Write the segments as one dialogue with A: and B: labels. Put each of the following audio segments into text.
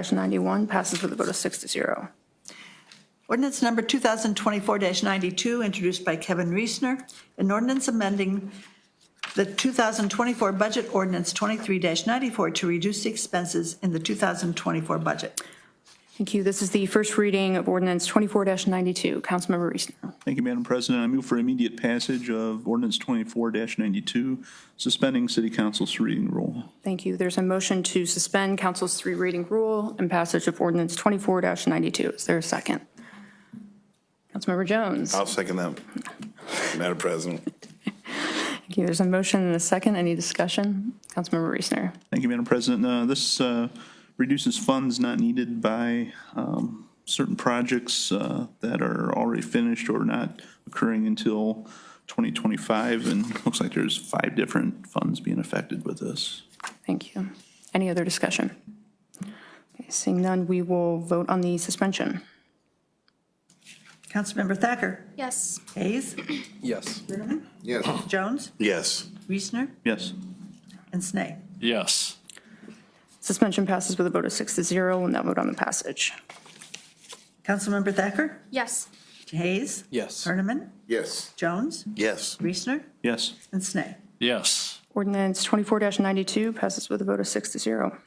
A: 24-91 passes with a vote of six to zero.
B: Ordinance number 2024-92, introduced by Kevin Reesner, an ordinance amending the 2024 budget ordinance 23-94 to reduce the expenses in the 2024 budget.
A: Thank you. This is the first reading of ordinance 24-92. Councilmember Reesner.
C: Thank you, Madam President. I move for immediate passage of ordinance twenty-four ninety-two, suspending city council's reading rule.
A: Thank you. There's a motion to suspend council's three reading rule and passage of ordinance 24-92. Is there a second? Councilmember Jones.
D: I'll second that, Madam President.
A: Thank you. There's a motion and a second. Any discussion? Councilmember Reesner.
C: Thank you, Madam President. Uh, This uh, reduces funds not needed by um, certain projects uh, that are already finished or not occurring until 2025, and it looks like there's five different funds being affected with this.
A: Thank you. Any other discussion? Okay, Seeing none, we will vote on the suspension.
B: Councilmember Thacker.
E: Yes.
B: Hayes.
F: Yes.
B: Linderman.
D: Yes.
B: Jones.
D: Yes.
B: Reesner.
C: Yes.
B: And Snee.
G: yes,
A: Suspension passes with a vote of six to zero. We'll now vote on the passage.
B: Councilmember Thacker.
E: Yes.
B: Hayes.
F: Yes.
B: Herniman.
D: Yes.
B: Jones.
D: Yes.
B: Reesner.
C: Yes.
B: And Snee.
G: yes,
A: Ordinance 24-92 passes with a vote of six to zero.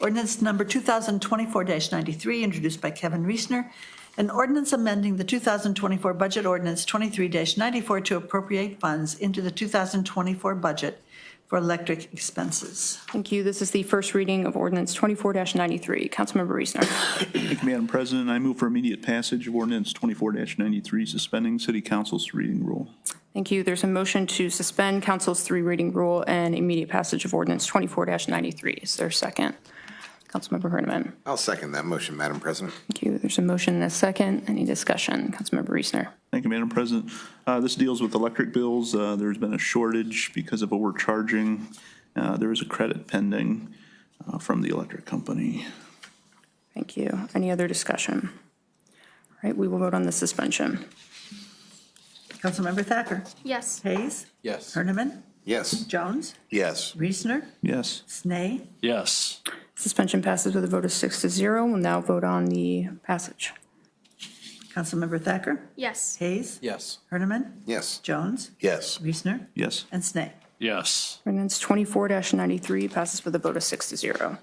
B: Ordinance number 2024-93, introduced by Kevin Reesner, an ordinance amending the 2024 budget ordinance 23-94 to appropriate funds into the 2024 budget for electric expenses.
A: Thank you. This is the first reading of ordinance 24-93. Councilmember Reesner.
C: Thank you, Madam President. I move for immediate passage of ordinance 24-93, suspending city council's reading rule.
A: Thank you. There's a motion to suspend council's three reading rule and immediate passage of ordinance 24-93. Is there a second? Councilmember Herniman.
D: I'll second that motion, Madam President.
A: Thank you. There's a motion and a second. Any discussion? Councilmember Reesner.
C: Thank you, Madam President. Uh, This deals with electric bills. Uh, There's been a shortage because of overcharging. Uh, There is a credit pending uh, from the electric company.
A: Thank you. Any other discussion? All right, we will vote on the suspension.
B: Councilmember Thacker.
E: Yes.
B: Hayes.
F: Yes.
B: Herniman.
D: Yes.
B: Jones.
D: Yes.
B: Reesner.
C: Yes.
B: Snee.
G: yes,
A: Suspension passes with a vote of six to zero. We'll now vote on the passage.
B: Councilmember Thacker.
E: Yes.
B: Hayes.
F: Yes.
B: Herniman.
D: Yes.
B: Jones.
D: Yes.
B: Reesner.
C: Yes.
B: And Snee.
G: yes,
A: Ordinance 24-93 passes with a vote of six to zero.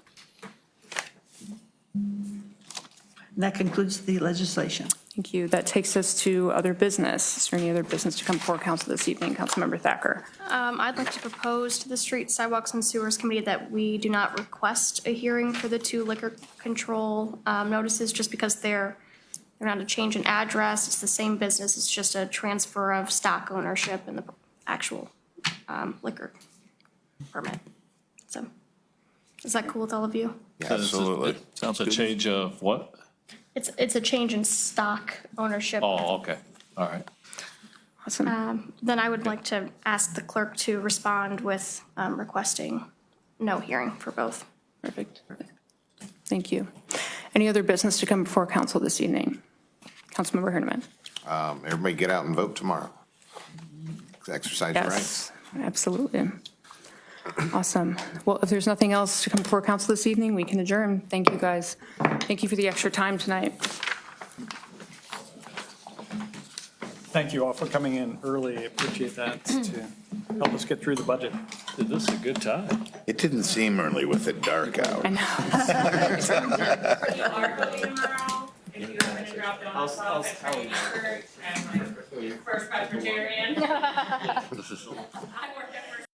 B: And that concludes the legislation.
A: Thank you. That takes us to other business. Is there any other business to come before council this evening? Councilmember Thacker.
E: Um, I'd like to propose to the Street Sidewalks and Sewers Committee that we do not request a hearing for the two liquor control, um, notices just because they're, they're not a change in address. It's the same business. It's just a transfer of stock ownership and the actual, um, liquor permit. So, is that cool with all of you?
D: Absolutely.
G: sounds a change of what?
E: It's, it's a change in stock ownership.
G: Oh, okay, all right,
A: Awesome.
E: Then I would like to ask the clerk to respond with um, requesting no hearing for both.
A: Perfect. Thank you. Any other business to come before council this evening? Councilmember Herniman.
D: Um, Everybody get out and vote tomorrow. Exercise your right.
A: Yes, absolutely. Awesome. Well, if there's nothing else to come before council this evening, we can adjourn. Thank you, guys. Thank you for the extra time tonight.
H: Thank you all for coming in early. I Appreciate that to help us get through the budget.
G: Dude, this is a good time.
D: It didn't seem early with the dark
A: I
D: hour.
A: know.
I: You are voting tomorrow, if you haven't dropped it off, I'll try and first Presbyterian. I work at First